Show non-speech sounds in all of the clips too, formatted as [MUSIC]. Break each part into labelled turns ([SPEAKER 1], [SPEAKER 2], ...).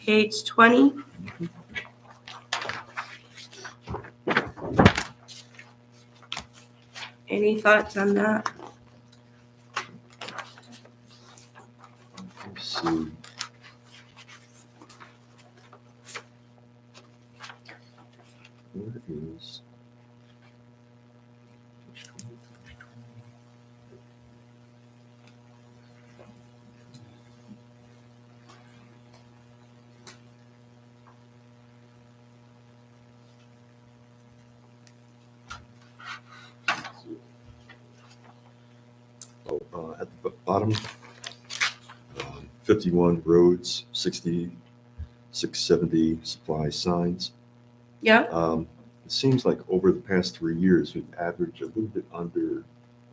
[SPEAKER 1] page 20. Any thoughts on that?
[SPEAKER 2] So Where is? Oh, uh, at the b- bottom, um, 51 roads, 60, 670 supply signs.
[SPEAKER 1] Yeah,
[SPEAKER 2] Um, It seems like over the past three years, we've averaged a little bit under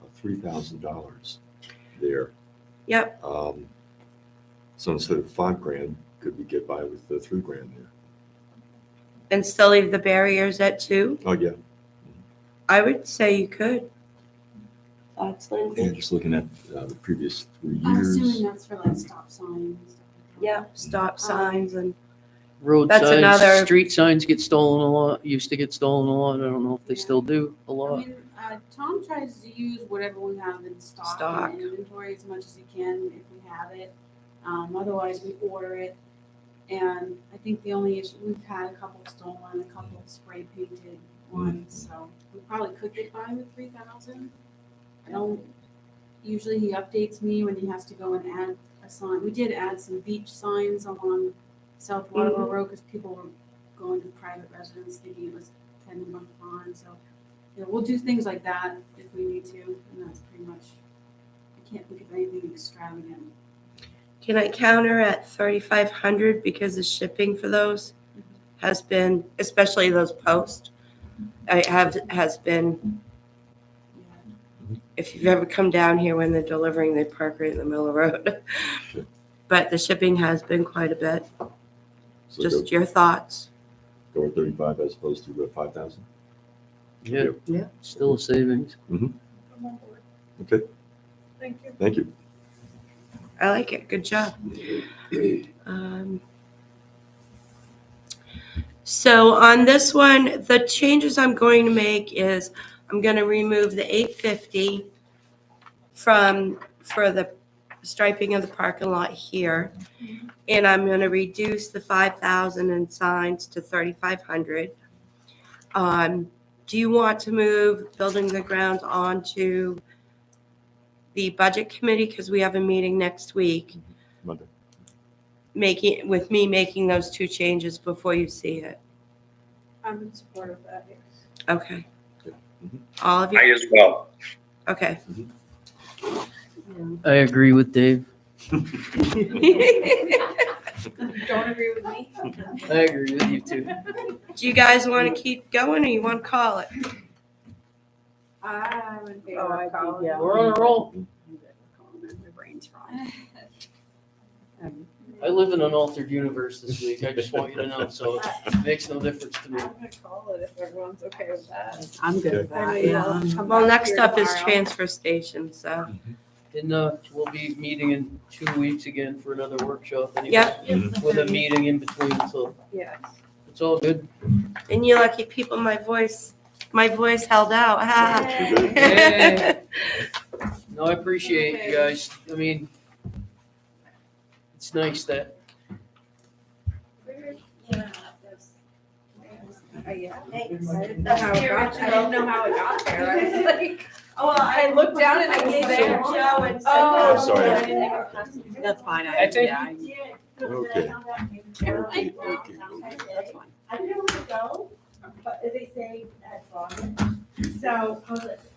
[SPEAKER 2] uh, $3,000 there.
[SPEAKER 1] yep,
[SPEAKER 2] Um, So instead of five grand, could we get by with the three grand there?
[SPEAKER 1] and still leave the barriers at two?
[SPEAKER 2] Oh, yeah,
[SPEAKER 1] I would say you could. Thoughts, Lindsay?
[SPEAKER 2] and just looking at uh, the previous three
[SPEAKER 3] I'm
[SPEAKER 2] years.
[SPEAKER 3] assuming that's for like stop signs. and stuff like that.
[SPEAKER 1] Yeah, stop signs and,
[SPEAKER 4] Road
[SPEAKER 1] That's another-
[SPEAKER 4] signs, street signs get stolen a lot, used to get stolen a lot. I don't know if they still do a
[SPEAKER 3] I
[SPEAKER 4] lot.
[SPEAKER 3] mean, uh, Tom tries to use whatever we have in stock,
[SPEAKER 1] Stock.
[SPEAKER 3] and inventory as much as he can if we have it. Um, otherwise, we order it. And I think the only issue we've had a couple stolen, a couple spray painted ones, so we probably could get by with three thousand. I don't. Usually, he updates me when he has to go and add a sign. We did add some beach signs along South Waterboro
[SPEAKER 5] Mm-hmm.
[SPEAKER 3] Road because people were going to private residence thinking it was ten month bond, so. Yeah, we'll do things like that if we need to, and that's pretty much, I can't think of anything extravagant.
[SPEAKER 1] can I counter at 3,500 because the shipping for those has been, especially those posts, I have, has been
[SPEAKER 3] Yeah.
[SPEAKER 1] if you've ever come down here when they're delivering, they park right in the middle of the road. [LAUGHS]
[SPEAKER 2] Sure.
[SPEAKER 1] But the shipping has been quite a bit.
[SPEAKER 2] So go-
[SPEAKER 1] Just your thoughts.
[SPEAKER 2] go at 35 as opposed to uh, 5,000?
[SPEAKER 4] Yeah, still a savings.
[SPEAKER 5] I'm on board.
[SPEAKER 2] Okay,
[SPEAKER 5] Thank you.
[SPEAKER 2] thank you.
[SPEAKER 1] I like it. Good job. Um, So on this one, the changes I'm going to make is I'm going to remove the 850 from, for the striping of the parking lot here. And I'm going to reduce the 5,000 in signs to 3,500. Um, Do you want to move building the grounds onto the budget committee? Because we have a meeting next week
[SPEAKER 2] Monday.
[SPEAKER 1] making, with me making those two changes before you see it.
[SPEAKER 5] I'm in support of that, yes.
[SPEAKER 1] Okay.
[SPEAKER 2] Yeah. Mhm.
[SPEAKER 1] All of
[SPEAKER 6] I
[SPEAKER 1] you,
[SPEAKER 6] as well.
[SPEAKER 1] okay. [LAUGHS]
[SPEAKER 4] I agree with Dave.
[SPEAKER 1] Do
[SPEAKER 5] Don't agree with
[SPEAKER 3] [LAUGHS]
[SPEAKER 5] me?
[SPEAKER 4] I agree with you too.
[SPEAKER 1] you guys want to keep going or you want to call it?
[SPEAKER 5] I'm in
[SPEAKER 7] Oh,
[SPEAKER 5] favor
[SPEAKER 7] I
[SPEAKER 5] of
[SPEAKER 7] do,
[SPEAKER 5] Colin.
[SPEAKER 7] yeah.
[SPEAKER 4] We're on a roll.
[SPEAKER 5] I'm good with Colin. My brain's fried.
[SPEAKER 4] I live in an altered universe this week. I just want you to know, so it makes no difference to
[SPEAKER 5] I'm
[SPEAKER 4] me.
[SPEAKER 5] gonna call it if everyone's okay with that.
[SPEAKER 7] I'm good with
[SPEAKER 5] I know
[SPEAKER 7] that,
[SPEAKER 5] you
[SPEAKER 7] yeah.
[SPEAKER 5] all
[SPEAKER 7] I'm-
[SPEAKER 5] come
[SPEAKER 1] Well,
[SPEAKER 5] back
[SPEAKER 1] next
[SPEAKER 5] here
[SPEAKER 1] up is
[SPEAKER 5] tomorrow.
[SPEAKER 1] transfer station, so,
[SPEAKER 4] And uh, we'll be meeting in two weeks again for another workshop. anyway,
[SPEAKER 1] Yep.
[SPEAKER 7] Mm-hmm.
[SPEAKER 5] It's the
[SPEAKER 4] With a
[SPEAKER 5] 30th.
[SPEAKER 4] meeting in between, so
[SPEAKER 5] Yes.
[SPEAKER 4] it's all good.
[SPEAKER 1] and you lucky people, my voice, my voice held out. [LAUGHS] Ah.
[SPEAKER 4] Hey. No, I appreciate you
[SPEAKER 5] Okay.
[SPEAKER 4] guys. I mean, it's nice that
[SPEAKER 5] Yeah, that's- Uh, Yeah.
[SPEAKER 7] That's
[SPEAKER 5] how it got- I didn't know how it got there. I was like,
[SPEAKER 1] Oh, well,
[SPEAKER 5] I looked down and it was
[SPEAKER 1] gave it
[SPEAKER 5] there.
[SPEAKER 1] to Joe and said-
[SPEAKER 5] Oh,
[SPEAKER 2] sorry.
[SPEAKER 5] I didn't think it was-
[SPEAKER 7] That's fine, I,
[SPEAKER 4] I think-
[SPEAKER 7] yeah, I-
[SPEAKER 2] Okay.
[SPEAKER 5] I
[SPEAKER 2] Okay,
[SPEAKER 5] know.
[SPEAKER 2] okay, okay.
[SPEAKER 7] that's fine.
[SPEAKER 5] I didn't want to go, but they say that's on. So, I was like,